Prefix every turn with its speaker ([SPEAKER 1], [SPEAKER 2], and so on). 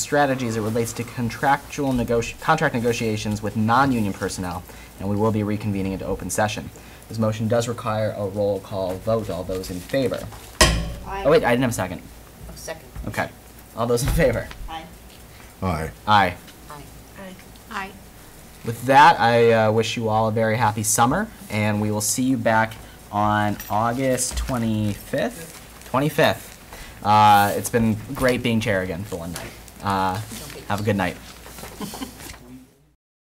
[SPEAKER 1] strategy as it relates to contractual negoti- contract negotiations with non-union personnel, and we will be reconvening into open session. This motion does require a roll call vote. All those in favor?
[SPEAKER 2] Aye.
[SPEAKER 1] Oh, wait, I didn't have a second.
[SPEAKER 2] Oh, Second.
[SPEAKER 1] Okay. All those in favor?
[SPEAKER 2] Aye.
[SPEAKER 3] Aye.
[SPEAKER 1] Aye.
[SPEAKER 2] Aye.
[SPEAKER 4] Aye.
[SPEAKER 1] With that, I uh, wish you all a very happy summer, and we will see you back on August 25th. 25th. Uh, it's been great being chair again for one night. Uh, have a good night.